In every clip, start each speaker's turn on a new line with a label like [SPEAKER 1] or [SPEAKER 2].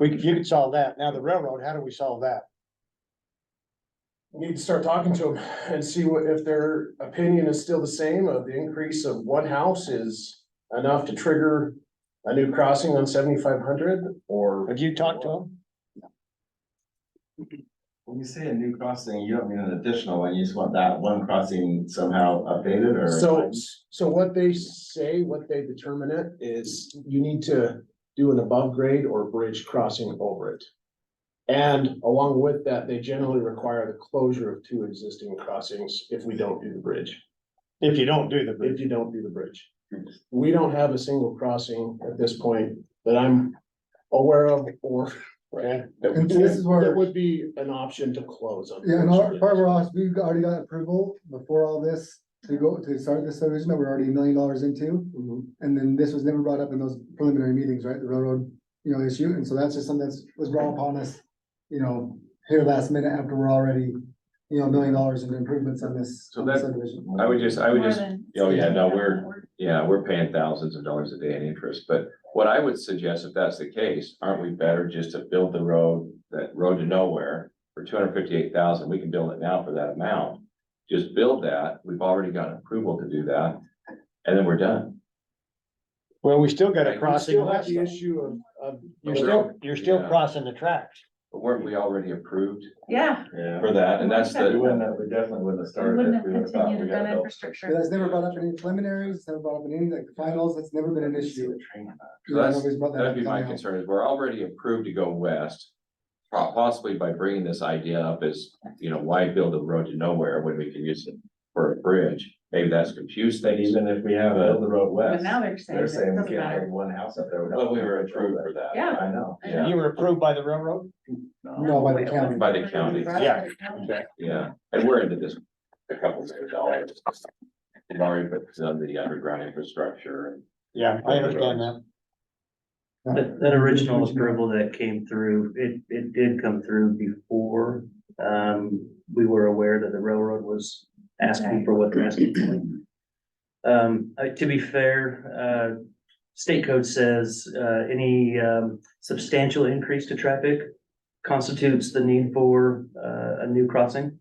[SPEAKER 1] We, could- you could solve that. Now the railroad, how do we solve that?
[SPEAKER 2] Need to start talking to them and see what, if their opinion is still the same of the increase of one house is enough to trigger a new crossing on seventy-five hundred or.
[SPEAKER 1] Have you talked to them?
[SPEAKER 3] When you say a new crossing, you don't mean an additional one, you just want that one crossing somehow updated or?
[SPEAKER 2] So, so what they say, what they determine it is you need to do an above grade or bridge crossing over it. And along with that, they generally require the closure of two existing crossings if we don't do the bridge,
[SPEAKER 1] If you don't do the
[SPEAKER 2] if
[SPEAKER 1] bridge,
[SPEAKER 2] you don't do the bridge. We don't have a single crossing at this point that I'm aware of or
[SPEAKER 1] okay?
[SPEAKER 2] that we
[SPEAKER 4] This is
[SPEAKER 2] can-
[SPEAKER 4] where-
[SPEAKER 2] that would be an option to close.
[SPEAKER 4] Yeah, and our, part of our
[SPEAKER 2] unfortunately.
[SPEAKER 4] office, we've already got approval before all this to go, to start this subdivision that we're already a million dollars into.
[SPEAKER 5] Mm-hmm.
[SPEAKER 2] Mhm.
[SPEAKER 4] And then this was never brought up in those preliminary meetings, right, the railroad, you know, issue, and so that's just something that's, was brought upon us. You know, here last minute after we're already, you know, a million dollars in improvements on this
[SPEAKER 5] So
[SPEAKER 4] on this
[SPEAKER 5] that-
[SPEAKER 4] subdivision.
[SPEAKER 5] I would just, I would
[SPEAKER 6] More
[SPEAKER 5] just,
[SPEAKER 6] than-
[SPEAKER 5] oh yeah, no, we're, yeah, we're paying thousands of dollars a day in interest, but what I would suggest, if that's the case, aren't we better just to build the road, that road to nowhere for two hundred fifty-eight thousand, we can build it now for that amount. Just build that, we've already got approval to do that, and then we're done.
[SPEAKER 1] Well, we still got
[SPEAKER 5] Right,
[SPEAKER 1] a
[SPEAKER 5] we
[SPEAKER 1] crossing
[SPEAKER 2] Still have
[SPEAKER 1] west.
[SPEAKER 2] the
[SPEAKER 1] though.
[SPEAKER 2] issue of, of.
[SPEAKER 1] You're still, you're still
[SPEAKER 5] Yeah.
[SPEAKER 1] crossing the tracks.
[SPEAKER 5] But weren't we already approved
[SPEAKER 6] Yeah,
[SPEAKER 3] Yeah.
[SPEAKER 5] for that, and that's
[SPEAKER 3] We
[SPEAKER 5] the,
[SPEAKER 3] wouldn't have, we definitely wouldn't have
[SPEAKER 6] we
[SPEAKER 3] started.
[SPEAKER 6] wouldn't
[SPEAKER 3] if
[SPEAKER 6] have
[SPEAKER 3] we would have thought
[SPEAKER 6] continued to
[SPEAKER 3] we got
[SPEAKER 6] build
[SPEAKER 4] But
[SPEAKER 3] built.
[SPEAKER 6] infrastructure.
[SPEAKER 4] That's never brought up in any preliminaries, never brought up in any like finals, that's never been an issue.
[SPEAKER 5] So
[SPEAKER 4] Yeah,
[SPEAKER 5] that's-
[SPEAKER 4] nobody's brought that
[SPEAKER 5] that'd
[SPEAKER 4] up
[SPEAKER 5] be
[SPEAKER 4] until
[SPEAKER 5] my
[SPEAKER 4] now.
[SPEAKER 5] concern, is we're already approved to go west. po- Possibly by bringing this idea up is, you know, why build a road to nowhere when we can use it for a bridge? Maybe that's confused
[SPEAKER 3] But
[SPEAKER 5] things,
[SPEAKER 3] Even if we have a, the road
[SPEAKER 6] But
[SPEAKER 3] west,
[SPEAKER 6] now they're saying
[SPEAKER 3] they're
[SPEAKER 6] it
[SPEAKER 3] saying
[SPEAKER 6] doesn't
[SPEAKER 3] we can't have
[SPEAKER 6] matter.
[SPEAKER 3] one house up there.
[SPEAKER 5] but we were approved for that.
[SPEAKER 6] Yeah.
[SPEAKER 3] I know.
[SPEAKER 6] I
[SPEAKER 5] Yeah.
[SPEAKER 6] know.
[SPEAKER 1] You were approved by the railroad?
[SPEAKER 4] No, by the
[SPEAKER 6] it
[SPEAKER 4] county.
[SPEAKER 5] By the county,
[SPEAKER 1] yeah.
[SPEAKER 5] Yeah, and we're into this, a couple million dollars. We've already put some of the underground infrastructure and
[SPEAKER 1] Yeah, I understand that.
[SPEAKER 7] That, that original approval that came through, it, it did come through before, um, we were aware that the railroad was asking for what they're asking for. Um, uh, to be fair, uh, state code says, uh, any, um, substantial increase to traffic constitutes the need for, uh, a new crossing.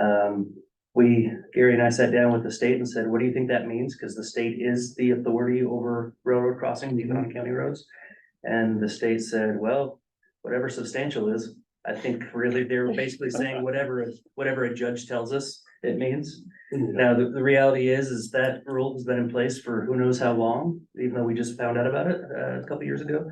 [SPEAKER 7] Um, we, Gary and I sat down with the state and said, what do you think that means? Because the state is the authority over railroad crossings, even on county roads. And the state said, well, whatever substantial is, I think really they were basically saying whatever, whatever a judge tells us it means. Now, the, the reality is, is that rule has been in place for who knows how long, even though we just found out about it, uh, a couple years ago.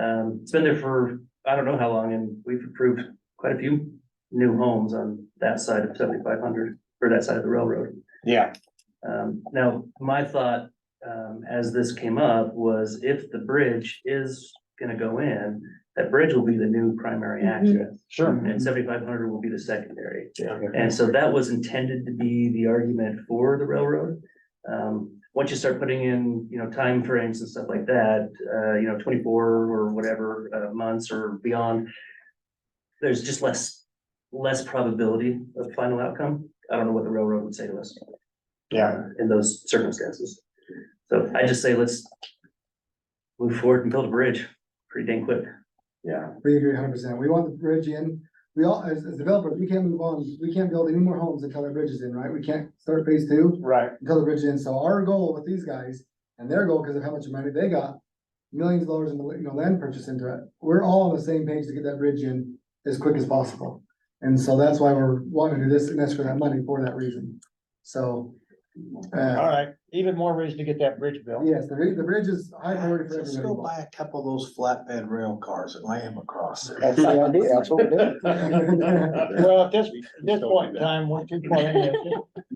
[SPEAKER 7] Um, it's been there for, I don't know how long, and we've approved quite a few new homes on that side of seventy-five hundred, or that side of the railroad.
[SPEAKER 1] Yeah,
[SPEAKER 7] Um, now, my thought, um, as this came up was if the bridge is gonna go in, that bridge will be the new primary access.
[SPEAKER 1] sure.
[SPEAKER 7] And seventy-five hundred will be the secondary.
[SPEAKER 2] Yeah.
[SPEAKER 7] And so that was intended to be the argument for the railroad. Um, once you start putting in, you know, time frames and stuff like that, uh, you know, twenty-four or whatever, uh, months or beyond. There's just less, less probability of final outcome. I don't know what the railroad would say to us.
[SPEAKER 1] Yeah.
[SPEAKER 7] uh, In those circumstances. So I just say, let's. Move forward and build a bridge pretty dang quick.
[SPEAKER 4] We agree hundred percent. We want the bridge in. We all, as, as developers, we can't move on. We can't build any more homes until the bridge is in, right? We can't start phase two
[SPEAKER 1] Right.
[SPEAKER 4] until the bridge is in. So our goal with these guys and their goal, because of how much money they got, millions of dollars in, you know, land purchase into it. We're all on the same page to get that bridge in as quick as possible. And so that's why we're wanting to do this and that's for that money for that reason. So.
[SPEAKER 1] All
[SPEAKER 4] Uh,
[SPEAKER 1] right, even more reason to get that bridge built.
[SPEAKER 4] yes, the, bri- the bridge is high priority for
[SPEAKER 8] Let's go
[SPEAKER 4] everybody.
[SPEAKER 8] buy a couple of those flatbed rail cars and lay them across it.
[SPEAKER 1] That's the idea, that's what we're doing. Well, at this, at this point in time, we're too far in this.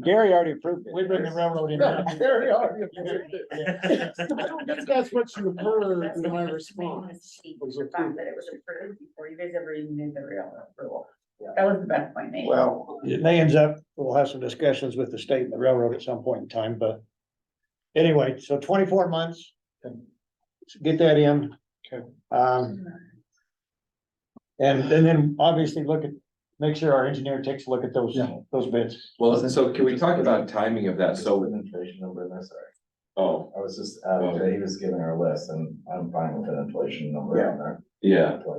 [SPEAKER 1] Gary already approved it. We bring the railroad in. now.
[SPEAKER 2] Very hard. That's what you heard in my response. was
[SPEAKER 6] The fact
[SPEAKER 2] approved.
[SPEAKER 6] that it was approved before you guys ever even knew the real rule. That was the best point made.
[SPEAKER 8] Well,
[SPEAKER 1] It may end up, we'll have some discussions with the state and the railroad at some point in time, but. Anyway, so twenty-four months. Get that in.
[SPEAKER 2] Okay.
[SPEAKER 1] Um, and, and then obviously look at, make sure our engineer takes a look at those,
[SPEAKER 4] Yeah.
[SPEAKER 1] those bids.
[SPEAKER 5] Well, so can we talk about timing of that?
[SPEAKER 3] Just put
[SPEAKER 5] So,
[SPEAKER 3] an inflation number in there, sorry.
[SPEAKER 5] oh,
[SPEAKER 3] I was just, uh, he was giving our list and I'm fine with an inflation number in there.
[SPEAKER 5] Yeah.